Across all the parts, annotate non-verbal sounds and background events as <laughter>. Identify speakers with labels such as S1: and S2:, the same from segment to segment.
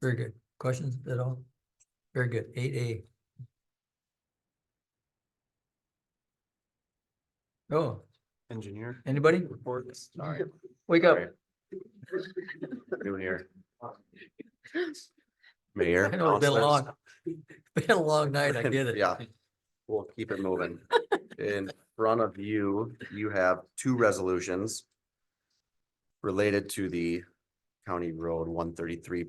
S1: Very good. Questions at all? Very good. Eight A. Oh,
S2: Engineer
S1: anybody?
S2: reports. Sorry.
S1: Wake up.
S2: New here.
S1: I
S2: Mayor.
S1: know it's been
S2: councilors.
S1: long. <laughs> Been a long night. I get it.
S2: <laughs> Yeah. We'll keep it moving. In front of you, you have two resolutions related to the County Road one thirty-three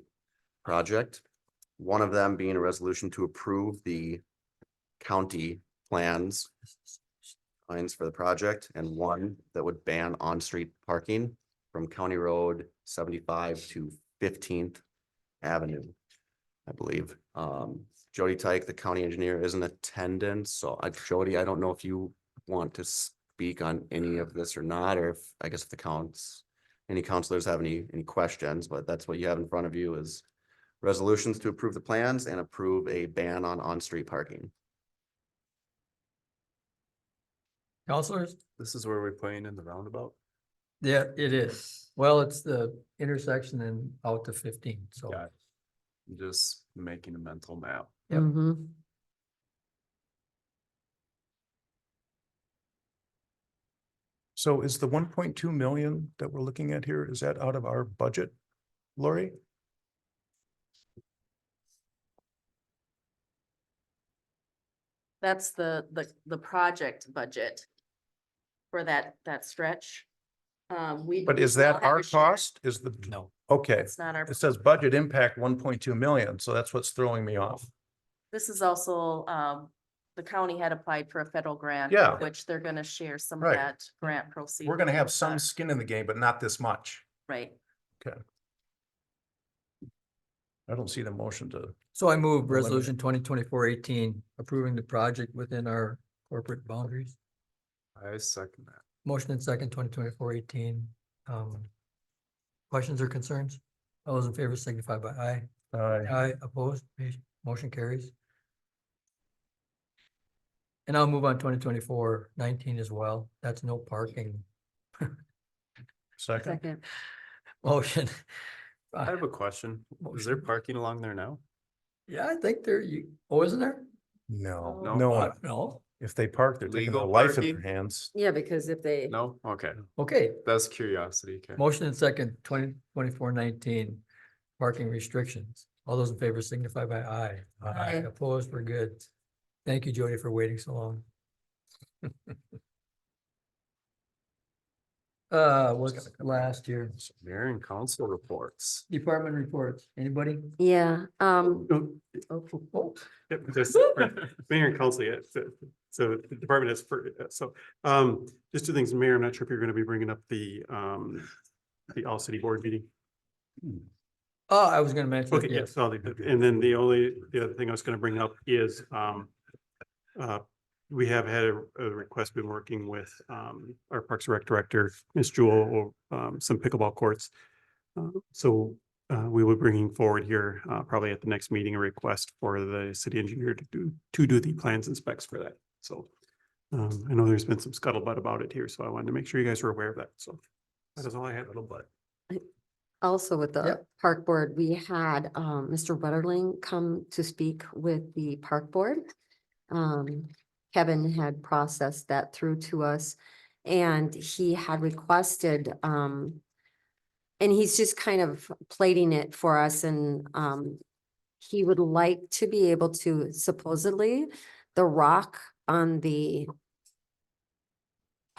S2: project. One of them being a resolution to approve the county plans lines for the project and one that would ban on-street parking from County Road seventy-five to Fifteenth Avenue, I believe. Um, Jody Tyke, the county engineer, is in attendance, so I, Jody, I don't know if you want to speak on any of this or not, or if, I guess if the counts, any counselors have any, any questions, but that's what you have in front of you is resolutions to approve the plans and approve a ban on on-street parking.
S1: Counselors?
S2: This is where we're playing in the roundabout?
S1: Yeah, it is. Well, it's the intersection and out to fifteen, so.
S2: Got Just making a mental map.
S1: Yep.
S3: Mhm.
S4: So is the one point two million that we're looking at here, is that out of our budget, Lori?
S3: That's the, the, the project budget for that, that stretch. Um, we.
S4: But is
S3: I'll
S4: that
S3: have
S4: our
S3: a share.
S4: cost? Is the,
S1: No,
S4: okay,
S3: It's not our,
S4: it says budget impact one point two million, so that's what's throwing me off.
S3: this is also, um, the county had applied for a federal grant.
S4: Yeah.
S3: Which they're gonna share some of
S4: Right.
S3: that grant proceeds.
S4: We're gonna have
S3: with
S4: some
S3: us,
S4: skin in the game, but not this much.
S3: Right.
S4: I don't see the motion to,
S1: so I move
S4: Eliminate.
S1: resolution twenty twenty-four eighteen, approving the project within our corporate boundaries.
S2: I second that.
S1: Motion and second, twenty twenty-four eighteen. Um, questions or concerns? All those in favor signify by aye.
S4: uh,
S1: Aye, opposed, Ma- motion carries. And I'll move on 2024-19 as well. That's no parking
S4: second,
S1: motion.
S2: I have a question. Is there
S1: Motion.
S2: parking along there now?
S1: Yeah, I think there, you, oh, isn't there?
S4: no,
S3: No.
S4: no,
S1: Uh, No,
S4: if they park, they're taking their
S2: Legal
S4: life in
S2: parking?
S4: their hands.
S3: Yeah, because if they.
S2: No? Okay,
S1: okay,
S2: that's curiosity. Okay.
S1: motion and second, 2024-19 parking restrictions. All those in favor signify by aye.
S3: Aye.
S1: Opposed, we're good. Thank you, Jody, for waiting so long. <laughs> Uh, what's last year?
S2: Mayor and council reports.
S1: Department reports, anybody?
S3: Yeah, um,
S1: Oh,
S5: Yep, there's- Mayor and council, yeah, so- so the department is for, so, um, just two things, Mayor, I'm not sure if you're gonna be bringing up the, um, the all city board meeting.
S1: Oh, I was gonna mention, it,
S5: Okay, yes,
S1: yes,
S5: I'll leave it. and then the only, the other thing I was gonna bring up is, um, uh, we have had a, a request, been working with, um, our Parks and Rec Director, Ms. Jewel, or, um, some pickleball courts. Uh, So, uh, we will be bringing forward here, uh, probably at the next meeting, a request for the city engineer to do, to do the plans and specs for that, so. Um, I know there's been some scuttlebutt about it here, so I wanted to make sure you guys were aware of that, so. That is all I had. Scuttlebutt.
S6: Also with the
S1: Yep.
S6: park board, we had um Mr. Wetterling come to speak with the park board. Um Kevin had processed that through to us and he had requested um. And he's just kind of plating it for us and um. He would like to be able to supposedly, the rock on the,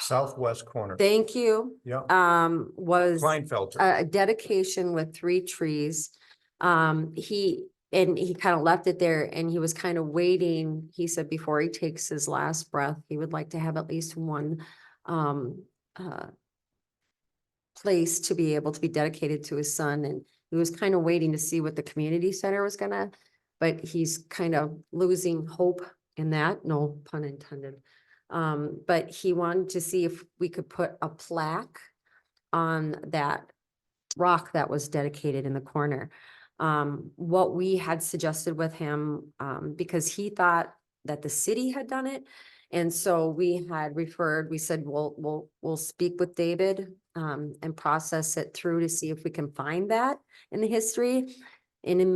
S4: Southwest corner,
S6: thank you,
S4: yeah,
S6: um was
S4: Kleinfelter,
S6: a a dedication with three trees. Um, he, and he kind of left it there and he was kind of waiting. He said before he takes his last breath, he would like to have at least one um uh place to be able to be dedicated to his son and he was kind of waiting to see what the community center was gonna, but he's kind of losing hope in that, no pun intended. Um, but he wanted to see if we could put a plaque on that rock that was dedicated in the corner. Um, what we had suggested with him, um, because he thought that the city had done it. And so we had referred, we said, we'll, we'll, we'll speak with David, um, and process it through to see if we can find that in the history. And in